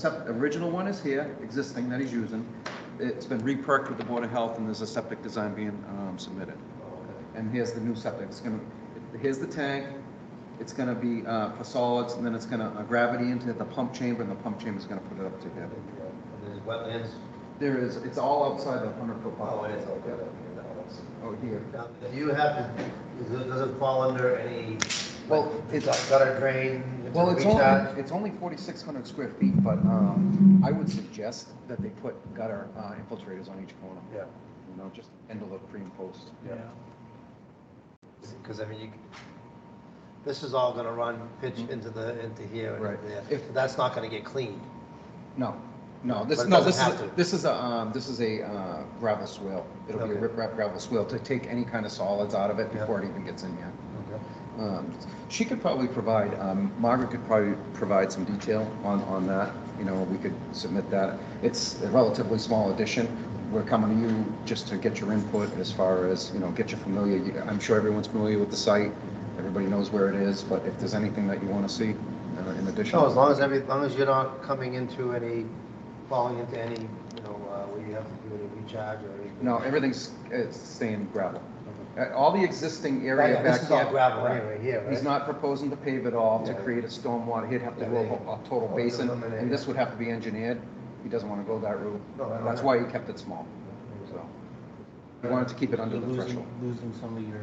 Sep- original one is here, existing that he's using. It's been re-perked with the Board of Health and there's a septic design being um, submitted. And here's the new septic. It's gonna, here's the tank. It's gonna be uh, for solids and then it's gonna uh, gravity into the pump chamber and the pump chamber's gonna put it up to here. And There's wetlands, There is, it's all outside the hundred foot oh, buffer. it is all good up here, that one's. Oh, here. Now, Do you have, to- does it, does it fall under any? Well, It's it's, gutter drain? well, it's recharge? only, it's only forty-six hundred square feet, but um, I would suggest that they put gutter uh, infiltrators on each corner. Yeah, You know, just end of the pre and post. yeah. Because I mean, you, this is all gonna run pitch into the, into here Mm-hmm. and Right. into there. If- That's not gonna get cleaned. No, no, this, But it no, doesn't this is, have to. this is a, um, this is a uh, gravel swale. It'll be a Okay. riprap gravel swale to take any kind of solids out of it Yeah. before it even gets in here. Um, She could probably provide, um, Margaret could probably provide some detail on, on that, you know, we could submit that. It's a relatively small addition. We're coming to you just to get your input as far as, you know, get you familiar. You- I'm sure everyone's familiar with the site. Everybody knows where it is, but if there's anything that you want to see uh, in addition. No, as long as every, as long as you're not coming into any, falling into any, you know, uh, where you have to do any recharge or anything. No, everything's uh, staying gravel. Uh, All the existing area Right, back here. This is all gravel anyway, here, right? He's not proposing to pave it all to Yeah. create a stormwater. He'd have to Yeah, do a yeah. whole- a total Oh, basin, eliminate and this it. would have to be engineered. He doesn't want to go that route. No, I don't That's know. why he kept it small, so. He wanted to keep it under You're the losing- threshold. Losing some of your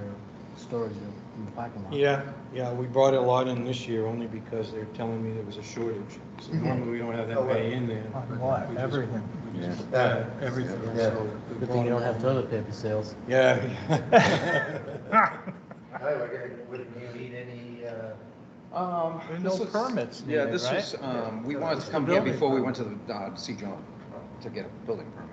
storage in the parking lot. Yeah, yeah, we brought a lot in this year only because they're telling me there was a shortage. So normally we don't have Oh, that right. many in there. Parking lot, We just- everything. we just- Yeah. Yeah, everything. Yeah. So Good we thing brought you don't it have in. toilet paper sales. Yeah. Anyway, would you need any, uh? Um, There are no this was- permits Yeah, needed, this right? was, um, we Yeah. wanted to come here Building before we went permit. to the, uh, see John to get a building permit.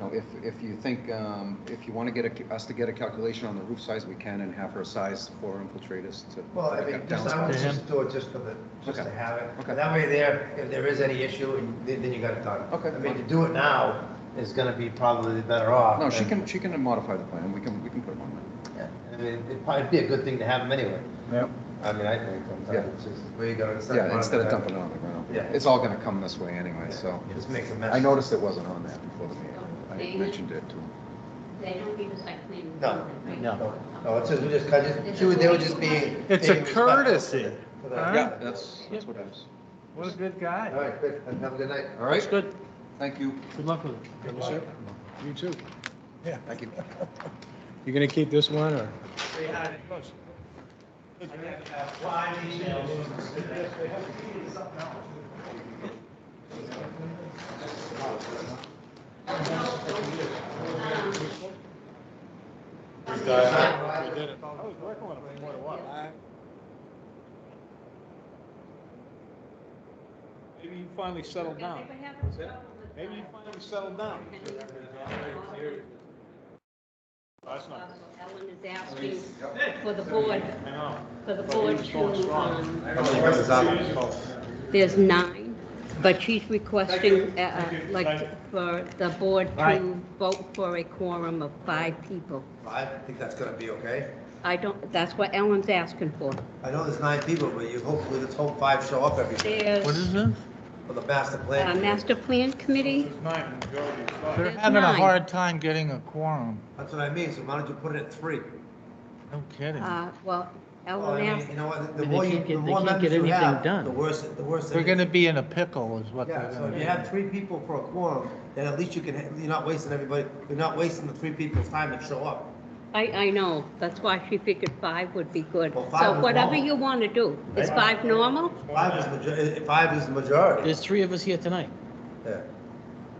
Now, if, if you think, um, if you want to get a- us to get a calculation on the roof size, we can and have her size for infiltrators to. Well, I mean, just, I would To just do it just for the, just to Okay. have it. Okay. And that way there, if there is any issue, and then then you got it done. Okay. I mean, to do it now is gonna be probably better off. No, she than- can, she can modify the plan. We can, we can put them on that. Yeah, I mean, it'd probably be a good thing to have them anyway. Yep. I mean, I think Yeah. sometimes it's just, where you go. Yeah, instead of dumping it on the ground. Yeah. It's all gonna come this way anyway, so. Just makes a mess. I noticed it wasn't on there before the meeting. I mentioned it to him. They don't give us like clean. No, right? no. No, no, it's just, we just, I just, she would, they would just be. It's a being respectful courtesy, to the- huh? Yeah, that's, that's what it is. What a good All guy. right, good, have a good night. All That's right, good. thank you. Good luck with it. Good luck. luck. You too. Yeah. Thank you. You gonna keep this one or? Maybe you finally settled down. Everybody have a problem with Maybe you finally settled down. That's Uh, not. Ellen is asking for the board, I know. for the board to, um, I don't know where this is at. there's nine, but she's requesting, uh, uh, Thank you. like, Bye. for the board Bye. to vote for a quorum of five people. I think that's gonna be okay. I don't, that's what Ellen's asking for. I know there's nine people, but you hopefully, let's hope five show up every, What There's is this? for the master a plan. master plan committee, It's nine, the majority is They're There's five. having a nine. hard time getting a quorum. That's what I mean, so why don't you put it at three? No kidding. uh, well, Well, Oh, I Ellen mean, asked, you know what, the And they more you, can't get- the they more can't members get you anything have, done. the worse, the worse. it They're is. gonna be in a pickle is what they're Yeah, so gonna if you be. have three people for a quorum, then at least you can, you're not wasting everybody, you're not wasting the three people's time that show up. I, I know, that's why she figured five would be good. Well, five So is whatever normal. you want to do, is Right. five normal? Five is major, eh, five is the majority. There's three of us here tonight. Yeah.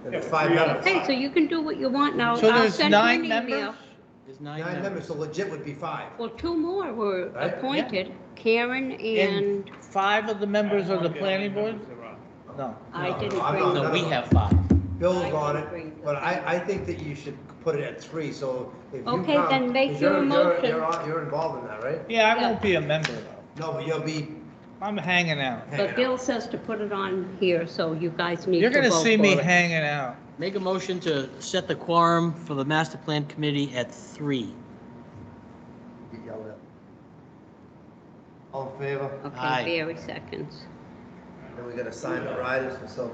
And it's Yeah, five three out of members. Hey, so you can do what you want now. So Oh, I'll there's send you an nine email. members? There's Nine members, so legit would be five. Well, two more were Right, yeah. appointed, Karen and, And five of the members of the planning board? No. I No, didn't I'm bring- not- No, we have five. I Bill's can on bring it, but I, I think that you should put it at three, so if you come. Okay, then make 'cause your you're- you're- motion. You're, on- you're involved in that, right? Yeah, I Yeah. won't be a member though. No, but you'll be I'm hanging out. hanging but out. Bill says to put it on here, so you guys need to You're vote for it. gonna see me hanging out. Make a motion to set the quorum for the master plan committee at three. Get yelled at. All in favor? Okay, Aye. Barry seconds. and we're gonna sign the riders and so